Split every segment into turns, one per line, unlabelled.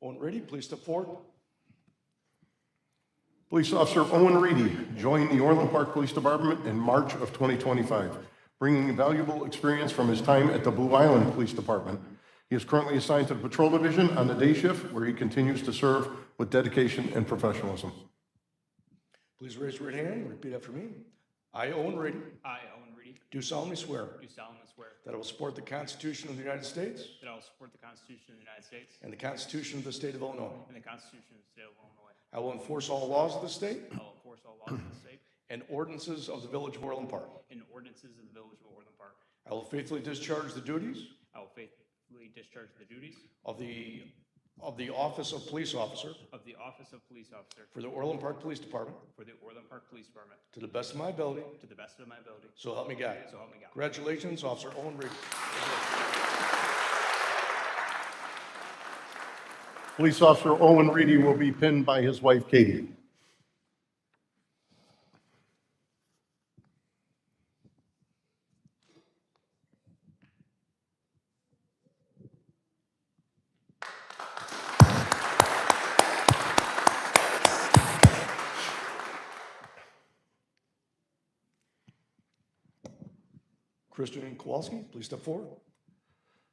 Ready, please step forward.
Police Officer Owen Reedy joined the Orland Park Police Department in March of 2025, bringing valuable experience from his time at the Blue Island Police Department. He is currently assigned to the Patrol Division on the day shift, where he continues to serve with dedication and professionalism.
Please raise your right hand and repeat after me. I, Owen Ready,
I, Owen Reedy,
do solemnly swear
do solemnly swear
that I will support the Constitution of the United States
that I will support the Constitution of the United States
and the Constitution of the State of Illinois.
and the Constitution of the State of Illinois.
I will enforce all laws of the state
I will enforce all laws of the state
and ordinances of the Village of Orland Park.
and ordinances of the Village of Orland Park.
I will faithfully discharge the duties
I will faithfully discharge the duties
of the, of the Office of Police Officer
of the Office of Police Officer
for the Orland Park Police Department
for the Orland Park Police Department
to the best of my ability,
to the best of my ability.
so help me God.
So help me God.
Congratulations, Officer Owen Reedy.
Police Officer Owen Reedy will be pinned by his wife Katie.
Christian Kowalski, please step forward.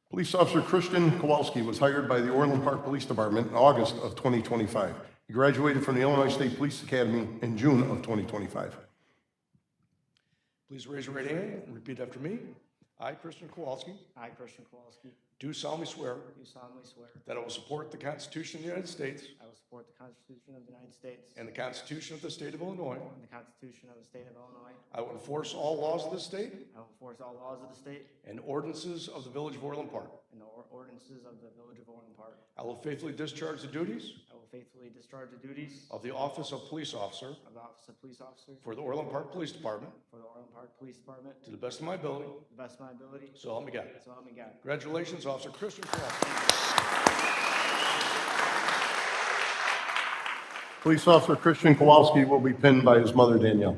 Police Officer Christian Kowalski was hired by the Orland Park Police Department in August of 2025. He graduated from the Illinois State Police Academy in June of 2025.
Please raise your right hand and repeat after me. I, Christian Kowalski,
I, Christian Kowalski, do
do solemnly swear
solemnly swear
that I will support the Constitution of the United States
I will support the Constitution of the United States
and the Constitution of the State of Illinois.
and the Constitution of the State of Illinois.
I will enforce all laws of the state
I will enforce all laws of the state
and ordinances of the Village of Orland Park.
and the or- ordinances of the Village of Orland Park.
I will faithfully discharge the duties
I will faithfully discharge the duties
of the Office of Police Officer
of the Office of Police Officer
for the Orland Park Police Department
for the Orland Park Police Department
to the best of my ability,
to the best of my ability.
so help me God.
So help me God.
Congratulations, Officer Christian Kowalski.
Police Officer Christian Kowalski will be pinned by his mother Danielle.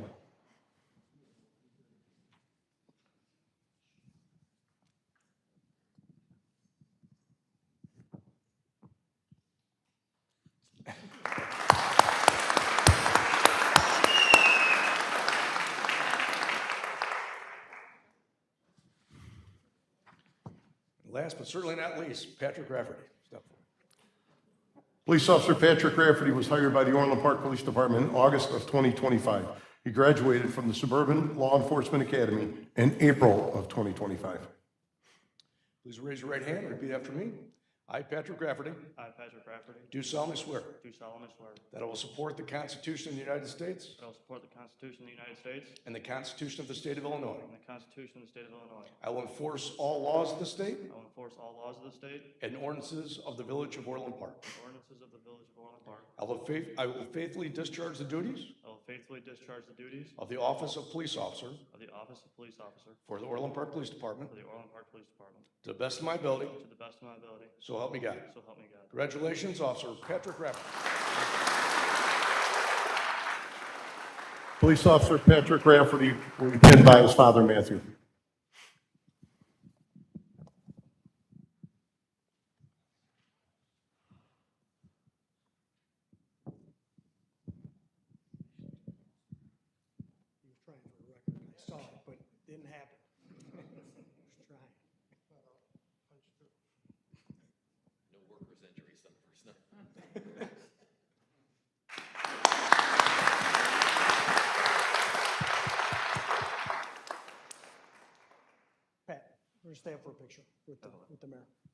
Last but certainly not least, Patrick Rafferty. Step forward.
Police Officer Patrick Rafferty was hired by the Orland Park Police Department in August of 2025. He graduated from the Suburban Law Enforcement Academy in April of 2025.
Please raise your right hand and repeat after me. I, Patrick Rafferty,
I, Patrick Rafferty,
do solemnly swear
do solemnly swear that
that I will support the Constitution of the United States
I will support the Constitution of the United States
and the Constitution of the State of Illinois.
and the Constitution of the State of Illinois.
I will enforce all laws of the state
I will enforce all laws of the state
and ordinances of the Village of Orland Park.
and ordinances of the Village of Orland Park.
I will faith- I will faithfully discharge the duties
I will faithfully discharge the duties
of the Office of Police Officer
of the Office of Police Officer
for the Orland Park Police Department
for the Orland Park Police Department
to the best of my ability,
to the best of my ability.
so help me God.
So help me God.
Congratulations, Officer Patrick Rafferty.
Police Officer Patrick Rafferty will be pinned by his father Matthew.
He was trying for a record. I saw it, but it didn't happen. He was trying. Pat, we're gonna stand for a picture with the, with the mayor.